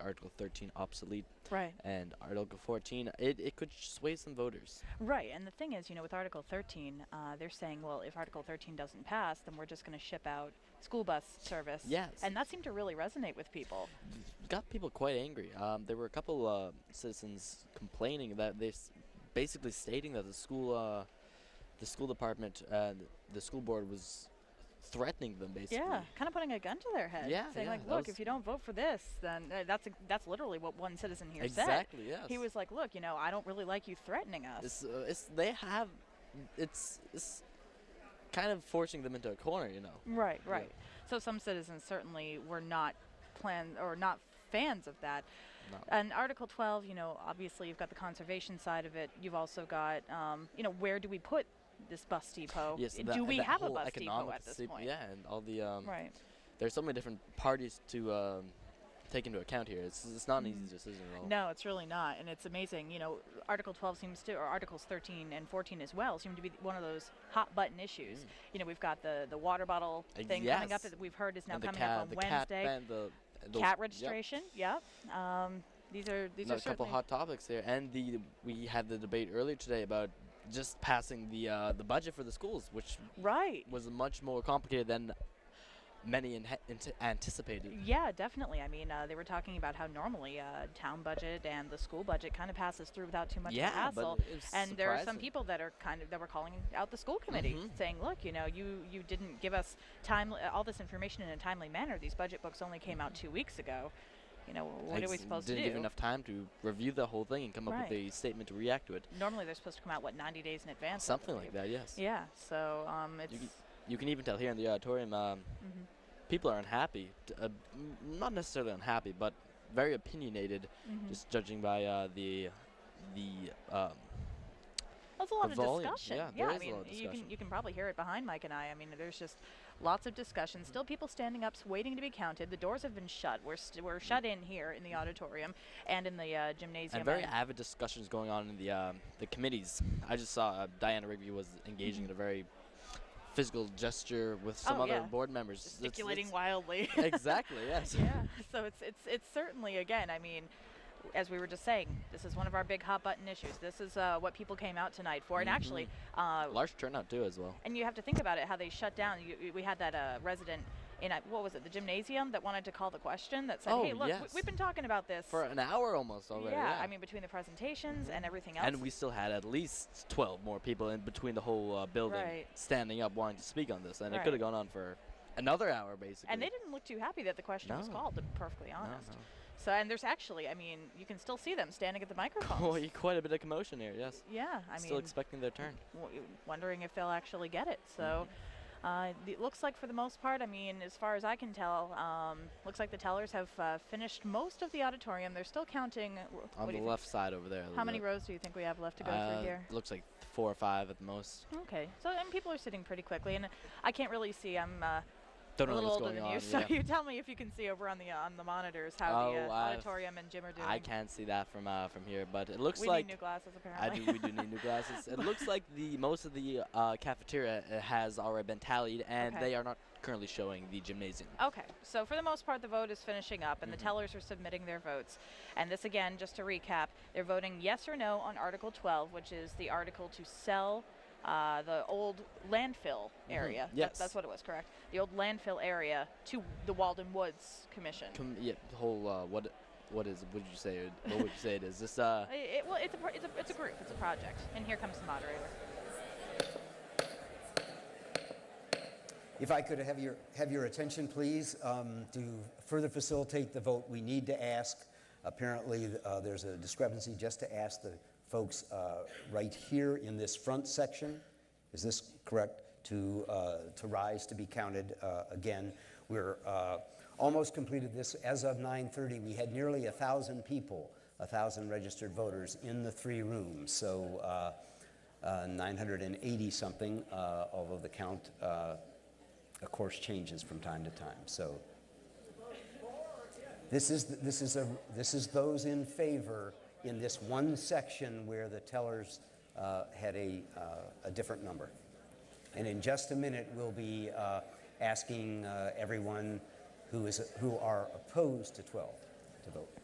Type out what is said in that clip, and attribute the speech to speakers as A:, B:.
A: Article 13 obsolete
B: Right.
A: and Article 14. It, it could sway some voters.
B: Right, and the thing is, you know, with Article 13, uh, they're saying, well, if Article 13 doesn't pass, then we're just going to ship out school bus service.
A: Yes.
B: And that seemed to really resonate with people.
A: Got people quite angry. Um, there were a couple uh, citizens complaining that they s- basically stating that the school uh, the school department and the school board was threatening them basically.
B: Yeah, kind of putting a gun to their head.
A: Yeah,
B: Saying,
A: yeah,
B: like,
A: that
B: look,
A: was-
B: if you don't vote for this, then uh, that's, ex- that's literally what one citizen here said.
A: Exactly. Yes.
B: He was like, look, you know, I don't really like you threatening us.
A: It's, uh, it's they have it's it's kind of forcing them into a corner, you know.
B: Right,
A: Yeah.
B: right. So some citizens certainly were not plan or not fans of that.
A: No.
B: And Article 12, you know, obviously you've got the conservation side of it. You've also got, um, you know, where do we put this bus depot?
A: Yes.
B: Do
A: that-
B: we
A: that
B: have a
A: whole
B: bus depot
A: economic
B: at this
A: sep-
B: point?
A: Yeah, and all the um,
B: Right.
A: there's so many different parties to um, take into account here. It's, it's not an
B: Mhm.
A: easy decision at all.
B: No, it's really not, and it's amazing. You know, Article 12 seems to, or Articles 13 and 14 as well, seem to be one of those hot button issues.
A: Mm.
B: You know, we've got the the water bottle
A: Uh,
B: thing coming up
A: yes.
B: that we've heard is now
A: and the
B: coming
A: cat,
B: up on
A: the
B: Wednesday.
A: cat ban, the uh, those-
B: cat
A: yep.
B: registration. Yep. Um, these are these
A: No,
B: are
A: a couple
B: certainly
A: hot topics here, and the we had the debate earlier today about just passing the uh, the budget for the schools, which
B: right.
A: was much more complicated than many inhe- ante- anticipated.
B: Yeah, definitely. I mean, uh, they were talking about how normally uh, town budget and the school budget kind of passes through without too much of a
A: yeah,
B: hassle.
A: but it's
B: and there are some
A: surprising.
B: people that are kind of that were calling out the school committee,
A: Mhm.
B: saying, "Look, you know, you you didn't give us time uh, all this information in a timely manner. These budget books only came out two weeks ago. You know, what are we
A: Mm-hmm. Ex-
B: supposed
A: didn't
B: to do?
A: give enough time to review the whole thing and come up
B: Right.
A: with a statement to react to it.
B: Normally, they're supposed to come out what 90 days in advance. I
A: Something
B: believe.
A: like that, yes.
B: Yeah. So um, it's.
A: can- You can even tell here in the auditorium, um,
B: mhm.
A: people are unhappy. t- uh, m- not necessarily unhappy, but very opinionated,
B: Mhm.
A: just judging by uh, the the um,
B: That's a lot
A: The
B: of
A: volume,
B: discussion.
A: yeah, there
B: I
A: is a
B: mean,
A: lot of
B: you can
A: discussion.
B: you can probably hear it behind Mike and I. I mean, there's just lots of discussion. Still, people standing up, s- waiting to be counted. The doors have been shut. We're st-
A: Mm.
B: we're shut in here in the auditorium and in the uh, gymnasium.
A: and very avid discussions going on in the um, the committees. I just saw uh, Diana Rigby was engaging in a very physical gesture with some
B: Hmm. Oh,
A: other
B: yeah.
A: board members, It's-
B: gesticulating
A: it's-
B: wildly.
A: exactly. Yes.
B: yeah. So it's it's it's certainly again. I mean. As we were just saying, this is one of our big hot button issues. This is uh, what people came out tonight for,
A: Mm-hmm.
B: and actually, uh,
A: Large turnout too, as well.
B: And you have to think about it, how they shut down. You, you- we had that uh, resident in, uh, what was it, the gymnasium that wanted to call the question that said,
A: Oh,
B: hey, look,
A: yes.
B: we, have been talking about this.
A: For an hour almost
B: yeah,
A: already.
B: I mean, between the presentations
A: Mhm.
B: and everything else.
A: And we still had at least 12 more people in between the whole uh, building
B: Right.
A: standing up wanting to speak on this. And it
B: Right.
A: could have gone on for another hour, basically.
B: And they didn't look too happy that the question was
A: No.
B: called, to be perfectly
A: No,
B: honest.
A: no.
B: So, and there's actually, I mean, you can still see them standing at the
A: Qu-
B: microphones.
A: Quite a bit of commotion here, yes.
B: yeah, I
A: still
B: mean,
A: expecting their turn.
B: w- wondering if they'll actually get it. So
A: Mm-hmm.
B: uh, it looks like, for the most part, I mean, as far as I can tell, um, looks like the tellers have uh, finished most of the auditorium. They're still counting. wh- what
A: On the
B: do you think?
A: left side over there. a
B: How
A: little
B: many
A: bit.
B: rows do you think we have left to go
A: Uh,
B: through here?
A: Looks like four or five at the most.
B: Okay, so and people are sitting pretty quickly, and I can't really see. I'm uh,
A: Don't
B: a
A: know
B: little
A: what's
B: older
A: going
B: than
A: on.
B: you, so
A: yeah.
B: you tell me if you can see over on the uh, on the monitors how the
A: Oh,
B: uh,
A: I've-
B: auditorium and gym are doing.
A: I can't see that from uh, from here, but it looks
B: we
A: like
B: need new glasses
A: I
B: apparently.
A: do. We do need new glasses. It looks like the most of the uh, cafeteria uh, has already been tallied, and
B: Okay.
A: they are not currently showing the gymnasium.
B: Okay, so for the most part, the vote is finishing up, and
A: Mhm.
B: the tellers are submitting their votes. And this, again, just to recap, they're voting yes or no on Article 12, which is the article to sell uh, the old landfill area. That-
A: Yes.
B: that's what it was, correct? The old landfill area to the Walden Woods Commission.
A: Com- yeah, the whole uh, what what is what did you say? it- What would you say it is? This uh,
B: I- it- well, it's a, pro- it's, a, it's a group, it's a project. And here comes the moderator.
C: If I could have your, have your attention, please, um, to further facilitate the vote, we need to ask. Apparently, uh, there's a discrepancy just to ask the folks uh, right here in this front section, is this correct, to, uh, to rise to be counted uh, again. We're uh, almost completed this. As of 9:30, we had nearly 1,000 people, 1,000 registered voters in the three rooms. So uh, uh, 980 something, uh, although the count uh, of course, changes from time to time. So this is, this is, a, this is those in favor in this one section where the tellers uh, had a, uh, a different number. And in just a minute, we'll be uh, asking uh, everyone who, is, who are opposed to 12 to vote.